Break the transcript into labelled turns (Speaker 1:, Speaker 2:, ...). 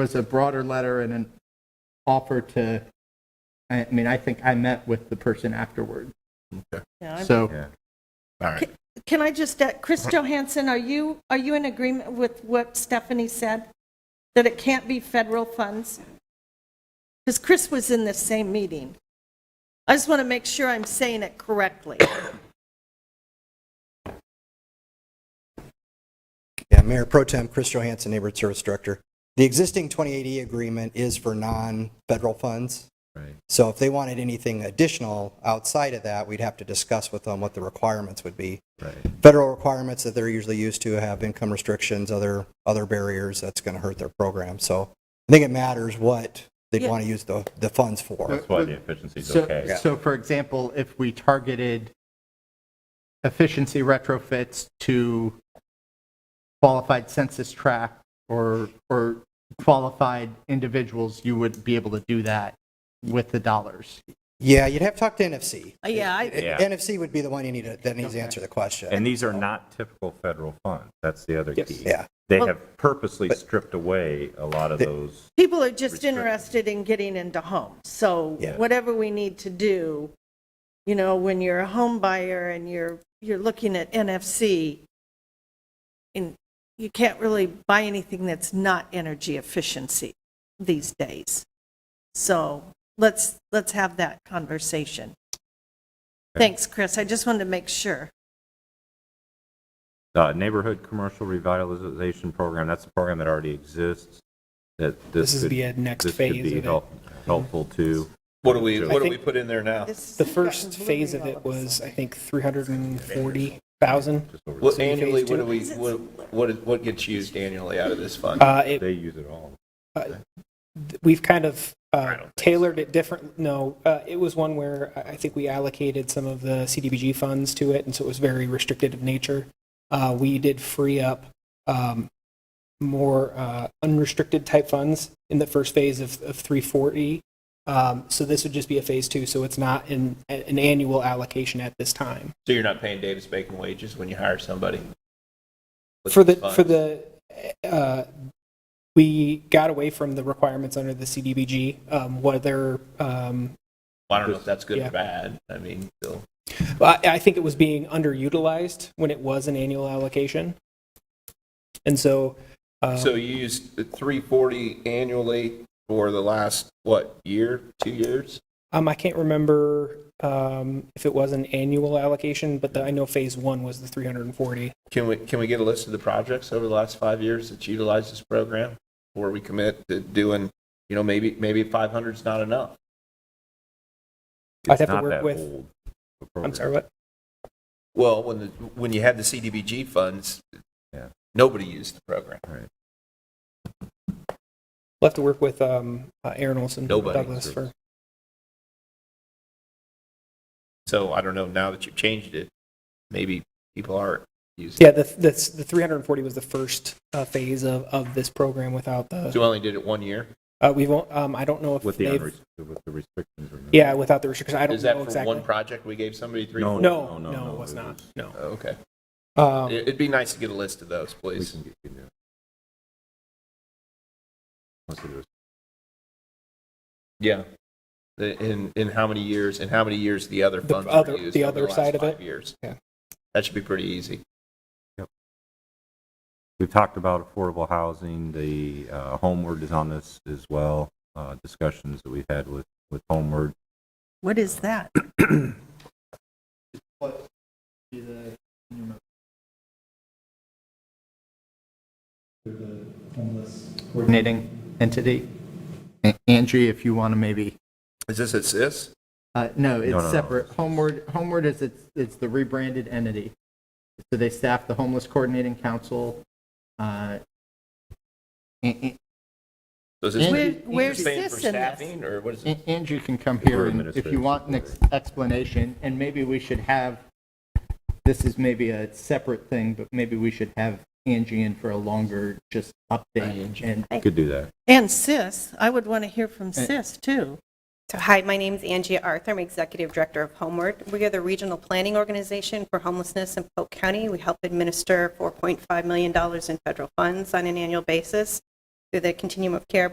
Speaker 1: was a broader letter and an offer to, I mean, I think I met with the person afterward.
Speaker 2: Yeah, I'm-
Speaker 1: So
Speaker 3: Yeah. All right.
Speaker 2: Can I just, uh, Chris Johansson, are you, are you in agreement with what Stephanie said? That it can't be federal funds? Because Chris was in the same meeting. I just want to make sure I'm saying it correctly.
Speaker 4: Yeah, Mayor Pro Tem Chris Johansson, Neighborhood Service Director. The existing 2080 agreement is for non-federal funds.
Speaker 3: Right.
Speaker 4: So if they wanted anything additional outside of that, we'd have to discuss with them what the requirements would be.
Speaker 3: Right.
Speaker 4: Federal requirements that they're usually used to have income restrictions, other, other barriers, that's going to hurt their program. So I think it matters what they'd
Speaker 2: Yeah.
Speaker 4: want to use the, the funds for.
Speaker 3: That's why the efficiency is
Speaker 1: So,
Speaker 3: okay.
Speaker 1: so for example, if we targeted efficiency retrofits to qualified census tract or, or qualified individuals, you would be able to do that with the dollars.
Speaker 4: Yeah, you'd have to talk to NFC.
Speaker 2: Uh, Yeah, I,
Speaker 3: Yeah.
Speaker 4: NFC would be the one you need to, that needs to answer the question.
Speaker 3: And these are not typical federal funds. That's the other key.
Speaker 4: Yeah.
Speaker 3: They
Speaker 2: Well-
Speaker 3: have purposely stripped away a lot of those.
Speaker 2: people are just interested in getting into homes. So
Speaker 4: Yeah.
Speaker 2: whatever we need to do, you know, when you're a home buyer and you're, you're looking at NFC, and you can't really buy anything that's not energy efficiency these days. So let's, let's have that conversation. Thanks, Chris. I just wanted to make sure.
Speaker 3: Uh, Neighborhood Commercial Revitalization Program, that's a program that already exists, that this
Speaker 5: This is
Speaker 3: could-
Speaker 5: the, uh, next
Speaker 3: this could
Speaker 5: phase
Speaker 3: be
Speaker 5: of it.
Speaker 3: help- Helpful to.
Speaker 6: What do we,
Speaker 3: to-
Speaker 6: what do
Speaker 5: I
Speaker 6: we
Speaker 5: think-
Speaker 6: put in there now?
Speaker 2: This-
Speaker 5: The
Speaker 2: this got
Speaker 5: first phase of
Speaker 2: blurry all
Speaker 5: it
Speaker 2: a sudden.
Speaker 5: was, I think, 340,000.
Speaker 3: just over-
Speaker 6: What
Speaker 5: So phase
Speaker 6: annually, what
Speaker 5: two?
Speaker 6: do we, what, what, is- what gets used annually out of this fund?
Speaker 5: Uh, it-
Speaker 3: They use it all.
Speaker 5: We've kind of uh, tailored it different, no, uh, it was one where I I think we allocated some of the CDBG funds to it, and so it was very restricted of nature. Uh, We did free up um, more uh, unrestricted type funds in the first phase of of 340. Um, So this would just be a phase two, so it's not an an annual allocation at this time.
Speaker 6: So you're not paying Davis Bacon wages when you hire somebody? With
Speaker 5: For the,
Speaker 6: this fund?
Speaker 5: for the, uh, we got away from the requirements under the CDBG, um, whether, um,
Speaker 6: I don't know if that's good
Speaker 5: Yeah.
Speaker 6: or bad. I mean, still.
Speaker 5: well, I, I think it was being underutilized when it was an annual allocation. And so, uh,
Speaker 6: So you used the three forty annually for the last, what, year, two years?
Speaker 5: um, I can't remember, um, if it was an annual allocation, but the- I know phase one was the 340.
Speaker 6: Can we, can we get a list of the projects over the last five years that utilize this program? Before we commit to doing, you know, maybe, maybe five hundred's not enough.
Speaker 5: I'd
Speaker 3: It's
Speaker 5: have to
Speaker 3: not
Speaker 5: work
Speaker 3: that
Speaker 5: with-
Speaker 3: old, the
Speaker 5: I'm
Speaker 3: program.
Speaker 5: sorry, what?
Speaker 6: Well, when the, when you had the CDBG funds,
Speaker 3: Yeah.
Speaker 6: nobody used the program.
Speaker 5: We'll have to work with, um, uh, Aaron Olson.
Speaker 6: Nobody.
Speaker 5: Douglas for,
Speaker 6: So I don't know, now that you've changed it, maybe people are using
Speaker 5: yeah,
Speaker 6: it.
Speaker 5: the, the, the 340 was the first, uh, phase of, of this program without the.
Speaker 6: So you only did it one year?
Speaker 5: Uh, we won't, um, I don't know if
Speaker 3: With the,
Speaker 5: they've,
Speaker 3: unrest- with the restrictions. removed.
Speaker 5: yeah, without the restrictions, I don't
Speaker 6: Is that
Speaker 5: know
Speaker 6: for one
Speaker 5: exactly.
Speaker 6: project we gave somebody three?
Speaker 3: No.
Speaker 6: four-
Speaker 3: No,
Speaker 5: No,
Speaker 3: no,
Speaker 5: no,
Speaker 3: no,
Speaker 5: it was
Speaker 3: it
Speaker 5: not,
Speaker 3: was-
Speaker 5: no.
Speaker 6: Oh, Okay.
Speaker 5: Um,
Speaker 6: It- It'd be nice to get a list of those,
Speaker 3: We
Speaker 6: please.
Speaker 3: can get you there. Unless it was-
Speaker 6: Yeah. The- In, in how many years, and how many years the other
Speaker 5: The
Speaker 6: funds
Speaker 5: other-
Speaker 6: were used
Speaker 5: the
Speaker 6: over
Speaker 5: other
Speaker 6: the
Speaker 5: side of
Speaker 6: last
Speaker 5: it?
Speaker 6: five years?
Speaker 5: Yeah.
Speaker 6: That should be pretty easy.
Speaker 3: We've talked about affordable housing, the uh, Homeward is on this as well, uh, discussions that we've had with, with Homeward.
Speaker 2: What is that?
Speaker 1: Coordinating entity. A- Angie, if you want to maybe
Speaker 6: Is this a CIS?
Speaker 1: Uh, no,
Speaker 3: no, no.
Speaker 1: it's separate. Homeward, Homeward is, it's, it's the rebranded entity. So they staff the Homeless Coordinating Council. uh, A-
Speaker 6: So is this-
Speaker 1: Where-
Speaker 6: is this
Speaker 2: where's
Speaker 6: paying for
Speaker 2: CIS in this?
Speaker 6: Staffing, or what is it?
Speaker 1: A- Andrew can come
Speaker 3: We're
Speaker 1: here and if you
Speaker 3: administrative
Speaker 1: want an ex- explanation, and maybe we should have, this is maybe a separate thing, but maybe we should have Angie in for a longer just update and
Speaker 3: We Could do that.
Speaker 2: And CIS, I would want to hear
Speaker 7: Uh,
Speaker 2: from CIS too.
Speaker 7: So hi, my name's Angie Arthur. I'm Executive Director of Homeward. We are the regional planning organization for homelessness in Polk County. We help administer $4.5 million in federal funds on an annual basis through the Continuum of Care